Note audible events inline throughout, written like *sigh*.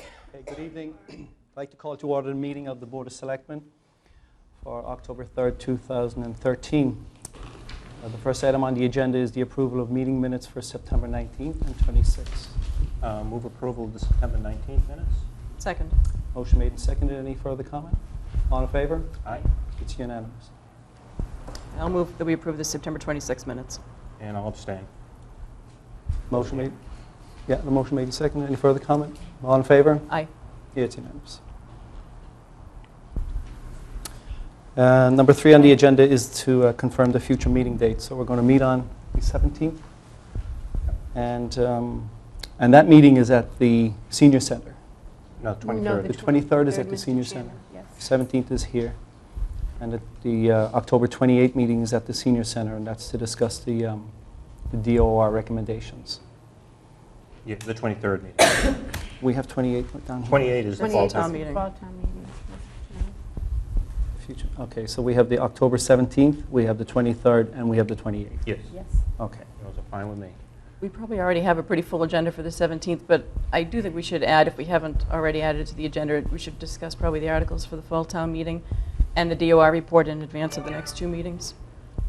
Okay, good evening. *clears throat* I'd like to call to order the meeting of the Board of Selectmen for October 3rd, 2013. Uh, The first item on the agenda is the approval of meeting minutes for September 19th and 26th. Uh, Move approval of the September 19th minutes. Second. Motion made and seconded. Any further comment? All in favor? Aye. It's unanimous. I'll move that we approve the September 26 minutes. And I'll abstain. Motion made, yeah, the motion made and seconded. Any further comment? All in favor? Aye. It's unanimous. Uh, Number three on the agenda is to uh, confirm the future meeting date. So we're going to meet on the 17th. And, um, and that meeting is at the Senior Center. No, No, 23rd. The 23rd is at the Mr. senior Chairman, Yes. 17th is here. And at the uh, October 28th meeting is at the Senior Center, and that's to discuss the um, the DOR recommendations. Yeah, the 23rd meeting. We have 28 down here. 28 is the 28th fall is the town meeting. Fall town meeting, Mr. Chairman. Future, okay, so we have the October 17th, we have the 23rd, and we have the 28th. Yes, Yes. Okay. those are fine with me. We probably already have a pretty full agenda for the 17th, but I do think we should add, if we haven't already added it to the agenda, we should discuss probably the articles for the fall town meeting and the DOR report in advance of the next two meetings.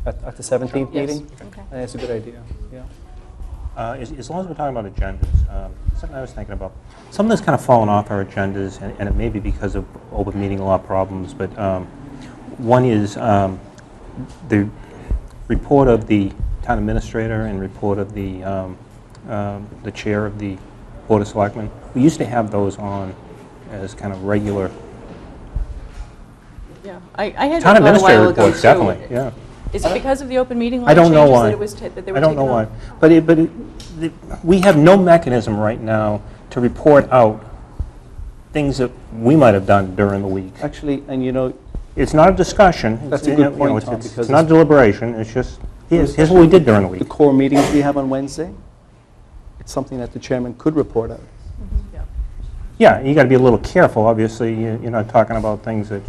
At, at the 17th Yes. meeting? Okay. That's a good idea, yeah. Uh, As as long as we're talking about agendas, um, something I was thinking about, something that's kind of fallen off our agendas, and- and it may be because of open meeting law problems, but um, one is um, the report of the town administrator and report of the, um, um, the chair of the Board of Selectmen. We used to have those on as kind of regular, Yeah, I I town had that thought a administrator while ago, too. reports, definitely, yeah. Is it because of the open meeting law I don't changes know why. that it was, ta- that they were I don't taken know why. off? But it, but it, the- we have no mechanism right now to report out things that we might have done during the week. Actually, and you know, It's not a discussion. It's- That's a you good know, point, it's- Tom, it's- because It's not it's- deliberation, it's just, here's, here's what we did during the the week. core meetings we have on Wednesday, it's something that the chairman could report out. Yeah. Yeah, you got to be a little careful, obviously, you- you're not talking about things that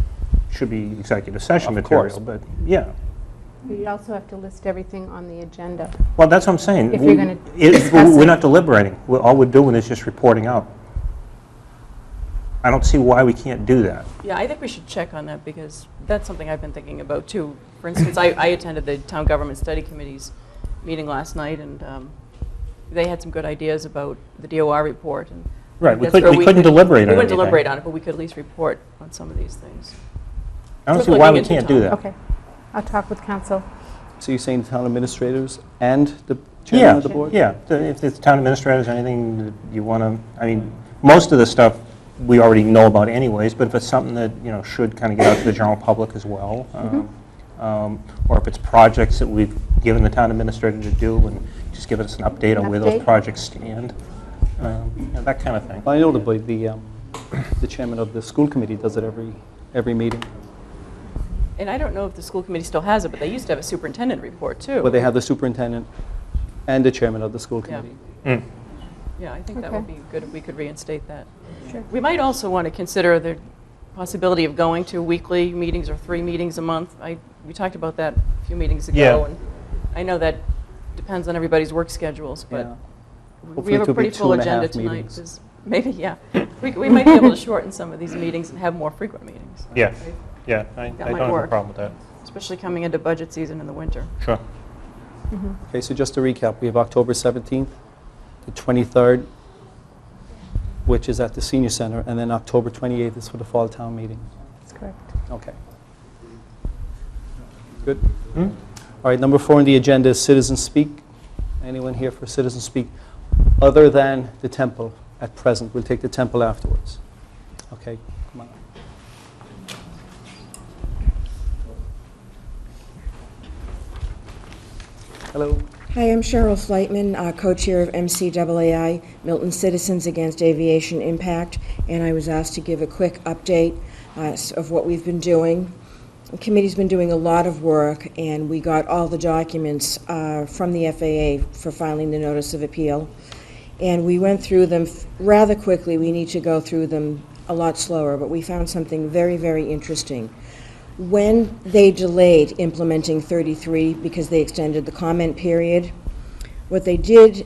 should be executive session Of course. material, but, yeah. You also have to list everything on the agenda. Well, that's what I'm saying. If you're We- gonna it- discuss We're it. not deliberating. We're- All we're doing is just reporting out. I don't see why we can't do that. Yeah, I think we should check on that because that's something I've been thinking about too. For instance, I, I attended the Town Government Study Committee's meeting last night and um, they had some good ideas about the DOR report and. Right, we that's couldn't- where we couldn't could- deliberate on We wouldn't anything. deliberate on it, but we could at least report on some of these things. I don't Just see why looking we into can't do time. that. Okay. I'll talk with council. So you're saying the town administrators and the chairman Yeah, of the board? yeah. The- If the town administrators, anything that you want to, I mean, most of the stuff we already know about anyways, but if it's something that, you know, should kind of get out to the general public as well, Mm-hmm. um, um, or if it's projects that we've given the town administrator to do, and just give us an update on where those Update. projects stand, um, you know, that kind of thing. I know the, the, um, the chairman of the school committee does it every, every meeting. And I don't know if the school committee still has it, but they used to have a superintendent report too. Where they have the superintendent and the chairman of the school Yeah. committee. Mm. Yeah, I think that would Okay. be good if we could reinstate that. Sure. We might also want to consider the possibility of going to weekly meetings or three meetings a month. I, we talked about that a few meetings ago. Yeah. and I know that depends on everybody's work schedules, Yeah. but we Hopefully it have could be a pretty two full and a agenda half tonight. meetings. 'cause Maybe, yeah. We, we might be able to shorten some of these meetings and have more frequent meetings, Yeah, yeah, I I That don't might have a work. problem with that. especially coming into budget season in the winter. Sure. Mm-hmm. Okay, so just to recap, we have October 17th, the 23rd, which is at the senior center, and then October 28th is for the fall town meeting. That's correct. Okay. Good. Hmm? All right, number four on the agenda is citizen speak. Anyone here for citizen speak other than the temple at present? We'll take the temple afterwards. Okay, come on. Hello. Hi, I'm Cheryl Flightman, uh, co-chair of MCAAI, Milton Citizens Against Aviation Impact, and I was asked to give a quick update uh, s- of what we've been doing. The committee's been doing a lot of work, and we got all the documents uh, from the FAA for filing the notice of appeal. And we went through them f- rather quickly. We need to go through them a lot slower, but we found something very, very interesting. When they delayed implementing 33 because they extended the comment period, what they did